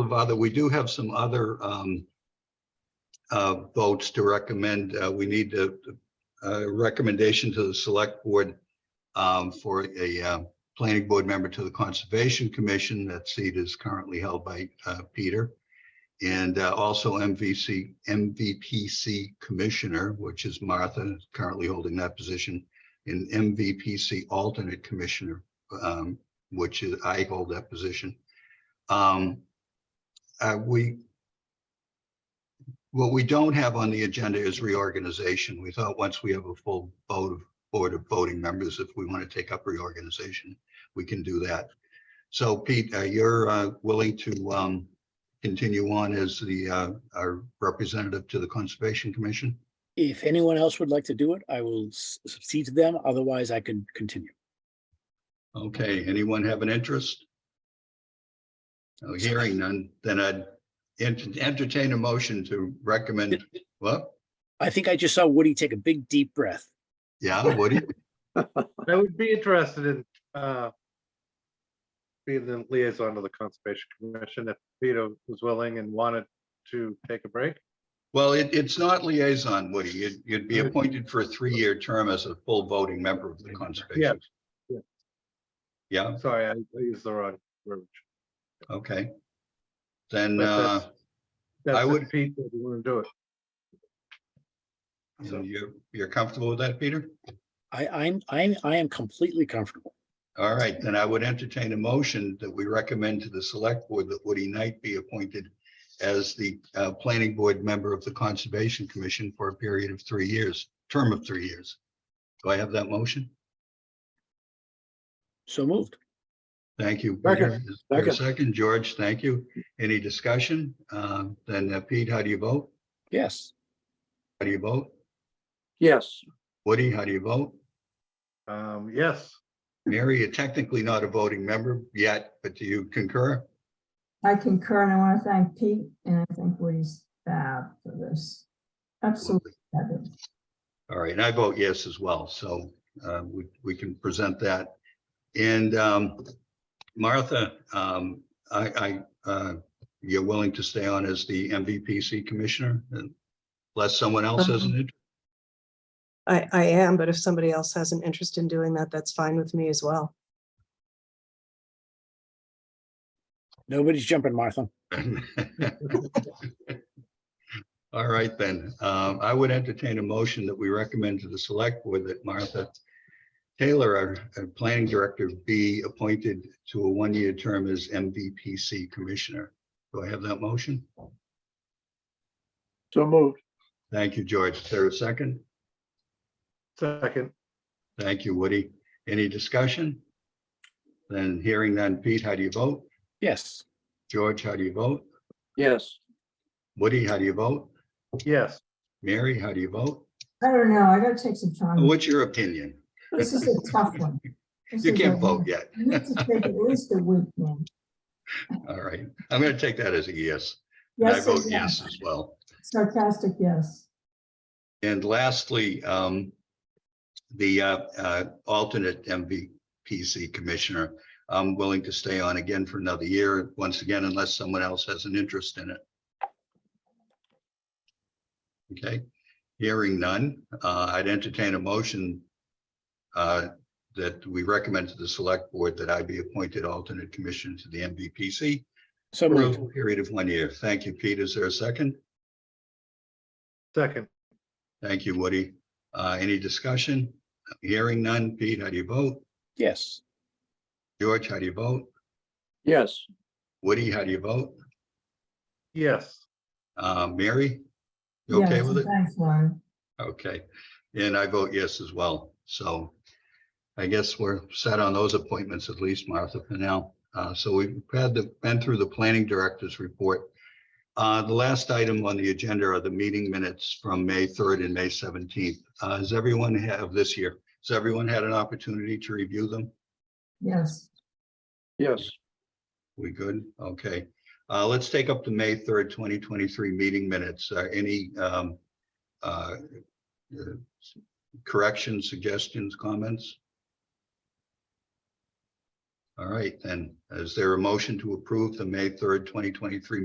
of other, we do have some other um, uh, votes to recommend. Uh, We need a a recommendation to the select board um, for a uh, planning board member to the Conservation Commission. That seat is currently held by uh, Peter. And uh, also MVC, MVPC Commissioner, which is Martha, currently holding that position. And MVPC Alternate Commissioner, um, which is, I hold that position. Um, uh, we, what we don't have on the agenda is reorganization. We thought once we have a full vote of, board of voting members, if we want to take up reorganization, we can do that. So Pete, uh, you're uh, willing to um, continue on as the, uh, our representative to the Conservation Commission? If anyone else would like to do it, I will s- succeed to them. Otherwise, I can continue. Okay, anyone have an interest? Oh, Hearing none, then I'd ent- entertain a motion to recommend, what? I think I just saw Woody take a big, deep breath. Yeah, Woody? I would be interested in uh, being the liaison to the Conservation Commission if Peter was willing and wanted to take a break. Well, it, it's not liaison, Woody. You'd, you'd be appointed for a three-year term as a full voting member of the Conservation. yeah. Yeah, Sorry, I I used the wrong verbiage. okay. Then, But uh, that's- That's if would- Pete, if you want to do it. so you're, you're comfortable with that, Peter? I, I'm, I'm, I am completely comfortable. All right, then I would entertain a motion that we recommend to the select board that Woody Knight be appointed as the, uh, planning board member of the Conservation Commission for a period of three years, term of three years. Do I have that motion? So moved. Thank you. Second. Peter. Is there a Second, George, thank you. Any discussion? Um, Then uh, Pete, how do you vote? Yes. How do you vote? Yes, Woody, how do you vote? Um, Yes, Mary, you're technically not a voting member yet, but do you concur? I concur, and I want to thank Pete, and I think Woody's fab for this. Absolutely fabulous. All right, and I vote yes as well, so uh, we, we can present that. And um, Martha, um, I, I, uh, you're willing to stay on as the MVPC Commissioner? Unless someone else has an interest? I, I am, but if somebody else has an interest in doing that, that's fine with me as well. Nobody's jumping, Martha. All right, then. Um, I would entertain a motion that we recommend to the select board that Martha Taylor, our, our planning director, be appointed to a one-year term as MVPC commissioner. Do I have that motion? so moved. Thank you, George. Is there a second? second, Thank you, Woody. Any discussion? Then hearing none. Pete, how do you vote? Yes. George, how do you vote? Yes, Woody, how do you vote? yes. Mary, how do you vote? I don't know, I gotta take some time. What's your opinion? This is a tough one. Oh, This You is can't a- vote yet. You need to take at least a week, man. All right. I'm going to take that as a yes. And I Yes, vote yes as well. Sarcastic, yes. And lastly, um, the uh, uh, alternate MVPC commissioner, I'm willing to stay on again for another year, once again, unless someone else has an interest in it. Okay, hearing none, uh, I'd entertain a motion uh, that we recommend to the select board that I be appointed alternate commissioner to the MVPC So for moved. a period of one year. Thank you, Pete. Is there a second? Second, Thank you, Woody. Uh, any discussion? Hearing none. Pete, how do you vote? Yes. George, how do you vote? yes, Woody, how do you vote? yes. Uh, Mary? You okay Yes, with it? Thanks, Lauren. Okay. And I vote yes as well. So I guess we're set on those appointments at least, Martha, for now. Uh, so we've had the, been through the planning director's report. Uh, the last item on the agenda are the meeting minutes from May third and May seventeenth. Uh, has everyone have this year? Has everyone had an opportunity to review them? Yes, yes, We good? Okay. Uh, let's take up the May third, twenty twenty-three meeting minutes. Uh, any, um, uh, uh, corrections, suggestions, comments? All right, then, is there a motion to approve the May third, twenty twenty-three